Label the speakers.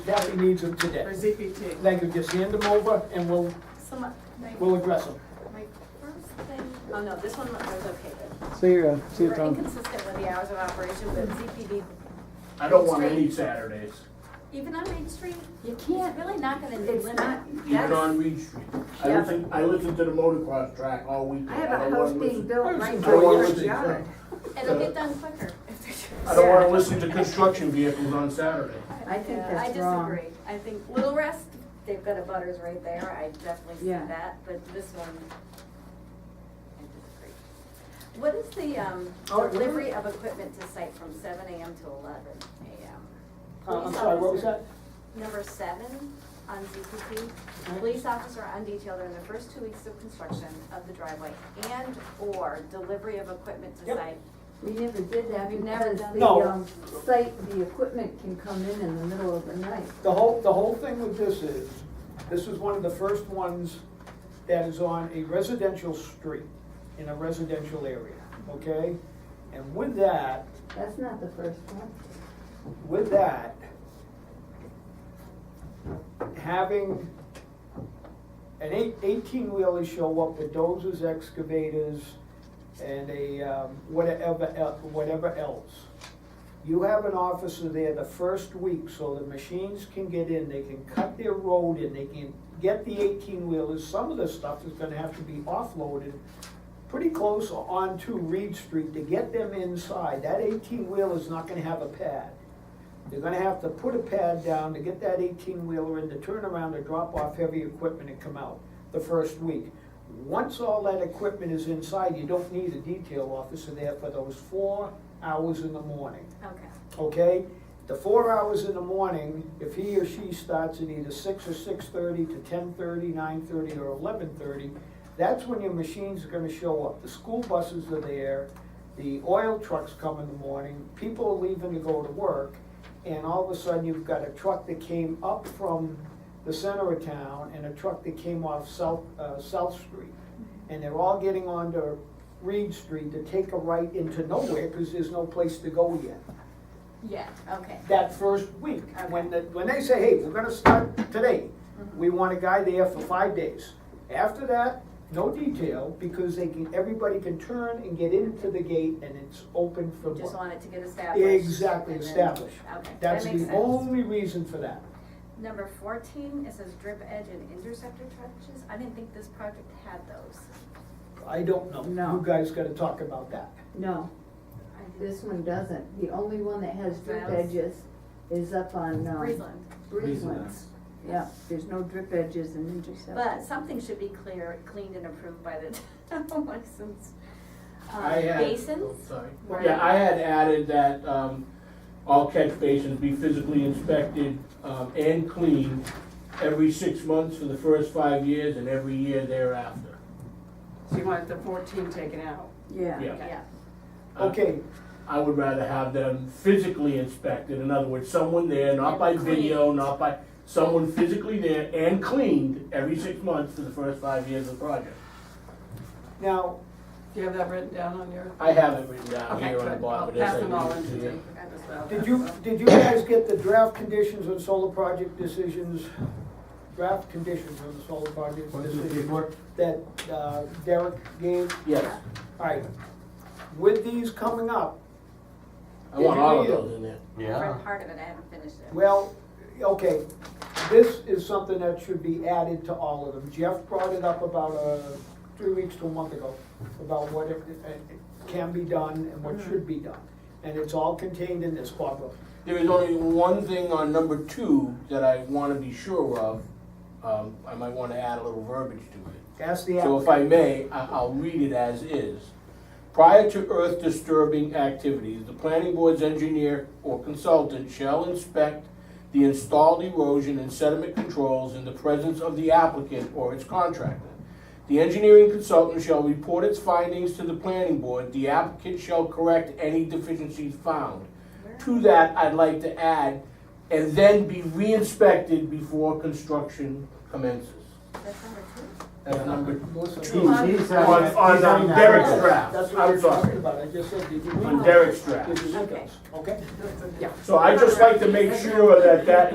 Speaker 1: that we need them
Speaker 2: for
Speaker 1: today.
Speaker 2: ZPT.
Speaker 1: Thank you, just hand them over and we'll,
Speaker 3: So my, my,
Speaker 1: we'll address them.
Speaker 3: my first thing, oh no, this one I was okay with.
Speaker 4: See you, uh, see
Speaker 3: We
Speaker 4: you,
Speaker 3: were
Speaker 4: Tom.
Speaker 3: inconsistent with the hours of operation, but ZPD,
Speaker 5: I don't want any Saturdays,
Speaker 3: even on Main Street,
Speaker 6: You
Speaker 3: it's
Speaker 6: can't,
Speaker 3: really not gonna
Speaker 6: It's
Speaker 3: limit.
Speaker 6: not-
Speaker 5: even on Reed Street. I
Speaker 3: Yeah.
Speaker 5: listen, I listen to the motocross track all weekend.
Speaker 6: I have a
Speaker 5: don't
Speaker 6: house
Speaker 5: wanna
Speaker 6: being
Speaker 5: listen-
Speaker 6: built right in
Speaker 5: I don't wanna
Speaker 6: my
Speaker 5: listen to
Speaker 6: yard.
Speaker 5: that.
Speaker 3: It'll get done quicker if they're.
Speaker 5: I don't wanna listen to construction vehicles on Saturday.
Speaker 6: I think that's
Speaker 3: Yeah,
Speaker 6: wrong.
Speaker 3: uh, I disagree. I think Little Rest, they've got a butters right there. I definitely see
Speaker 6: Yeah.
Speaker 3: that, but this one, I disagree. What is the, um,
Speaker 1: Oh, yeah.
Speaker 3: delivery of equipment to site from seven AM to eleven AM?
Speaker 1: Uh, I'm sorry, what was that?
Speaker 3: Number seven on ZPP, police officer on detail during the first two weeks of construction of the driveway and/or delivery of equipment to
Speaker 1: Yep.
Speaker 3: site.
Speaker 6: We never did that
Speaker 3: We've never
Speaker 6: because
Speaker 3: done
Speaker 6: the,
Speaker 1: No.
Speaker 6: um, site, the equipment can come in in the middle of the night.
Speaker 1: The whole, the whole thing with this is, this is one of the first ones that is on a residential street in a residential area, okay? And with that,
Speaker 6: That's not the first one.
Speaker 1: with that, having an eight, eighteen-wheeler show up with dozers, excavators, and a, um, whatever, el- whatever else. You have an officer there the first week, so the machines can get in, they can cut their road in, they can get the eighteen-wheelers, some of the stuff is gonna have to be offloaded pretty close onto Reed Street to get them inside. That eighteen-wheeler's not gonna have a pad. They're gonna have to put a pad down to get that eighteen-wheeler in to turn around to drop off heavy equipment and come out the first week. Once all that equipment is inside, you don't need a detail officer there for those four hours in the morning,
Speaker 3: Okay.
Speaker 1: okay? The four hours in the morning, if he or she starts at either six or six-thirty to 10:30, 9:30, or eleven-thirty, that's when your machines are gonna show up. The school buses are there, the oil trucks come in the morning, people are leaving to go to work, and all of a sudden, you've got a truck that came up from the center of town and a truck that came off South, uh, South Street. And they're all getting onto Reed Street to take a right into nowhere, cause there's no place to go yet.
Speaker 3: Yeah, okay.
Speaker 1: That first week, when the, when they say, hey, we're gonna start today, we want a guy there for five days. After that, no detail, because they can, everybody can turn and get into the gate and it's open for
Speaker 3: You just
Speaker 1: work.
Speaker 3: want it to get established.
Speaker 1: Exactly,
Speaker 3: and then-
Speaker 1: established.
Speaker 3: Okay, that
Speaker 1: That's
Speaker 3: makes
Speaker 1: the
Speaker 3: sense.
Speaker 1: only reason for that.
Speaker 3: Number fourteen, it says drip edge and interceptor trenches. I didn't think this project had those.
Speaker 1: I don't know.
Speaker 6: No.
Speaker 1: You guys gotta talk about that.
Speaker 6: No,
Speaker 3: I didn't-
Speaker 6: this one doesn't. The only one that has drip
Speaker 3: Well-
Speaker 6: edges is up on, um.
Speaker 3: Breezeland.
Speaker 6: Breezelands. Yeah, there's no drip edges and interceptors.
Speaker 3: But something should be clear, cleaned and approved by the town licensed,
Speaker 5: I
Speaker 3: uh,
Speaker 5: had- oh,
Speaker 3: basins.
Speaker 5: Sorry.
Speaker 3: right?
Speaker 5: Yeah, I had added that, um, all catch basins be physically inspected, um, and cleaned every six months for the first five years and every year thereafter.
Speaker 2: So you want the fourteen taken out?
Speaker 6: Yeah,
Speaker 5: Yeah.
Speaker 3: Yeah,
Speaker 5: Uh,
Speaker 1: Okay,
Speaker 5: I would rather have them physically inspected, in other words, someone there, not by
Speaker 3: And
Speaker 5: video,
Speaker 3: cleaned.
Speaker 5: not by, someone physically there and cleaned every six months for the first five years of the project.
Speaker 1: now,
Speaker 2: Do you have that written down on your?
Speaker 5: I have it written down
Speaker 2: Okay,
Speaker 5: here on the
Speaker 2: good.
Speaker 5: bottom,
Speaker 2: I'll
Speaker 5: but as
Speaker 2: pass
Speaker 5: I
Speaker 2: them all
Speaker 5: read
Speaker 2: in
Speaker 5: it
Speaker 2: to
Speaker 5: to you.
Speaker 2: you. as well.
Speaker 1: did you, did you guys get the draft conditions on solar project decisions? Draft conditions on the solar project
Speaker 5: What is it,
Speaker 1: decisions
Speaker 5: paperwork?
Speaker 1: that uh, Derek gave?
Speaker 5: Yes,
Speaker 1: Alright, with these coming up,
Speaker 5: I want all of
Speaker 1: Did you read it?
Speaker 5: those in there.
Speaker 3: I read part of it, I haven't finished it.
Speaker 1: well, okay, this is something that should be added to all of them. Jeff brought it up about, uh, three weeks to a month ago, about what it, it can be done and what should be done. And it's all contained in this, Barbara.
Speaker 5: There is only one thing on number two that I wanna be sure of, um, I might wanna add a little verbiage to it.
Speaker 1: Ask the
Speaker 5: So if
Speaker 1: applicant.
Speaker 5: I may, I- I'll read it as is. Prior to earth disturbing activities, the planning board's engineer or consultant shall inspect the installed erosion and sediment controls in the presence of the applicant or its contractor. The engineering consultant shall report its findings to the planning board. The applicant shall correct any deficiencies found. To that, I'd like to add, and then be re-inspected before construction commences.
Speaker 3: That's number two.
Speaker 5: That's number
Speaker 1: Melissa,
Speaker 5: two.
Speaker 3: Jeez.
Speaker 5: On, on um, Derek's draft,
Speaker 1: That's what
Speaker 5: I'm
Speaker 1: we're talking
Speaker 5: sorry,
Speaker 1: about, I just said, did you?
Speaker 5: on Derek's draft.
Speaker 1: Did you look at us? okay?
Speaker 5: So I'd just like to make sure that that